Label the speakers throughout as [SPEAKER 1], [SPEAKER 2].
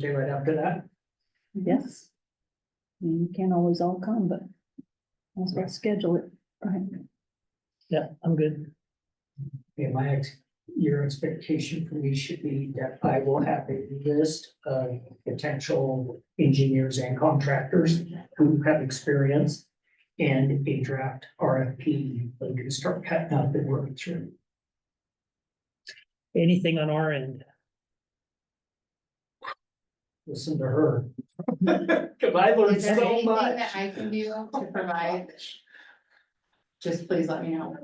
[SPEAKER 1] Day right after that,
[SPEAKER 2] Yes. I mean, You can't always all come, but let's let's schedule it, right?
[SPEAKER 3] Yeah, I'm good.
[SPEAKER 1] and my ex, your expectation for me should be that I will have a list of potential engineers and contractors who have experience and a draft RFP, that we can start cutting up and working through.
[SPEAKER 3] Anything on our end?
[SPEAKER 1] Listen to her. Cause I learned
[SPEAKER 4] Is there
[SPEAKER 1] so
[SPEAKER 4] anything
[SPEAKER 1] much.
[SPEAKER 4] that I can do to provide? Just please let me know.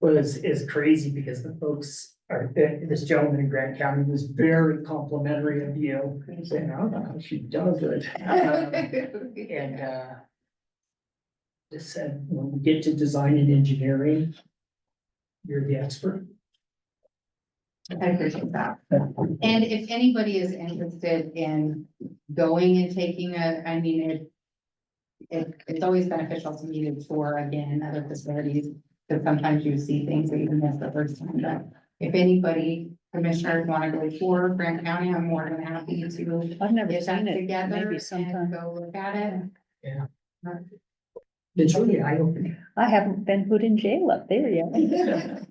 [SPEAKER 1] was, is crazy because the folks are, this gentleman in Grant County was very complimentary of you. And saying, I don't know how she does it. Um, And, uh, just said, when we get to design and engineering, you're the expert.
[SPEAKER 4] I appreciate that. And if anybody is interested in going and taking a, I mean, it. It, it's always beneficial to me to tour again other facilities, because sometimes you see things that you miss the first time, but. If anybody commissioners want to go tour Grant County, I'm more than happy to
[SPEAKER 2] I've never
[SPEAKER 4] get that
[SPEAKER 2] seen it,
[SPEAKER 4] together
[SPEAKER 2] maybe
[SPEAKER 4] and
[SPEAKER 2] sometime.
[SPEAKER 4] go look at it.
[SPEAKER 1] It's really eye-opening.
[SPEAKER 2] I haven't been put in jail up there yet.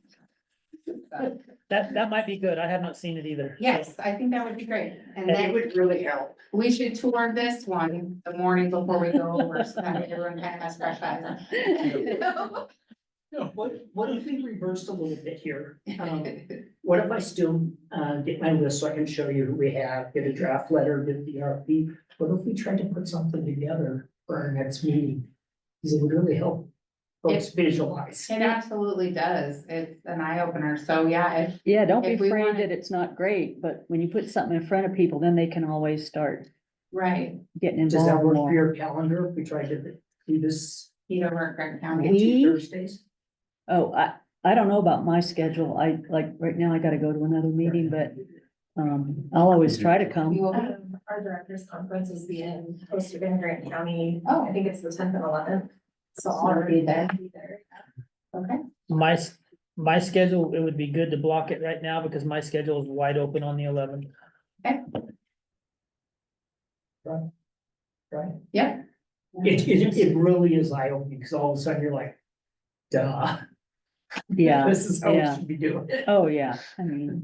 [SPEAKER 3] That, that might be good. I have not seen it either. so-
[SPEAKER 4] Yes, I think that would be great, and
[SPEAKER 3] And
[SPEAKER 4] that would really help. We should tour this one the morning before we go over, so that way everyone kind of has fresh eyes.
[SPEAKER 1] No, what, what if we reversed a little bit here? Um, What if I still, uh, get my list so I can show you who we have, get a draft letter, get the RFP? What if we try to put something together for our next meeting? Because it would really help folks visualize.
[SPEAKER 4] It absolutely does, it's an eye opener, so yeah, if,
[SPEAKER 2] Yeah, don't be
[SPEAKER 4] If we
[SPEAKER 2] afraid
[SPEAKER 4] wanna-
[SPEAKER 2] that it's not great, but when you put something in front of people, then they can always start
[SPEAKER 4] right,
[SPEAKER 2] getting
[SPEAKER 1] Does that
[SPEAKER 2] involved
[SPEAKER 1] work for
[SPEAKER 2] more.
[SPEAKER 1] your calendar? If we try to do this
[SPEAKER 4] heat over at Grant
[SPEAKER 1] on
[SPEAKER 4] County.
[SPEAKER 2] We-
[SPEAKER 1] two Thursdays?
[SPEAKER 2] Oh, I, I don't know about my schedule. I, like, right now I gotta go to another meeting, but, um, I'll always try to
[SPEAKER 4] We
[SPEAKER 2] come.
[SPEAKER 4] will-
[SPEAKER 5] Um, our directors conference is being hosted in Grant County.
[SPEAKER 4] Oh.
[SPEAKER 5] I think it's the tenth and eleventh. So
[SPEAKER 4] So you'll
[SPEAKER 5] I'll
[SPEAKER 4] be
[SPEAKER 5] be
[SPEAKER 4] there.
[SPEAKER 5] there.
[SPEAKER 4] Okay,
[SPEAKER 3] My, s- my schedule, it would be good to block it right now because my schedule is wide open on the eleventh.
[SPEAKER 1] Right?
[SPEAKER 4] yeah.
[SPEAKER 1] It, it, it really is eye-opening because all of a sudden you're like, duh.
[SPEAKER 2] Yeah,
[SPEAKER 1] This is how we
[SPEAKER 2] yeah.
[SPEAKER 1] should be doing it.
[SPEAKER 2] oh, yeah, I mean,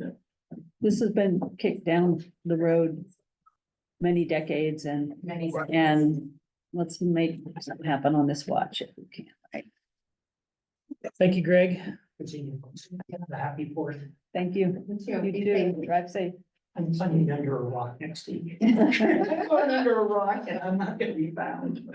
[SPEAKER 2] this has been kicked down the road many decades and
[SPEAKER 4] Many.
[SPEAKER 2] And let's make something happen on this watch if we can.
[SPEAKER 3] Thank you, Greg.
[SPEAKER 1] Continue. The happy fourth.
[SPEAKER 2] Thank you.
[SPEAKER 4] You too.
[SPEAKER 2] You
[SPEAKER 4] Be
[SPEAKER 2] too. Drive safe.
[SPEAKER 1] I'm sunning under a rock next week.
[SPEAKER 4] safe.
[SPEAKER 1] I'm going under a rock and I'm not gonna be found.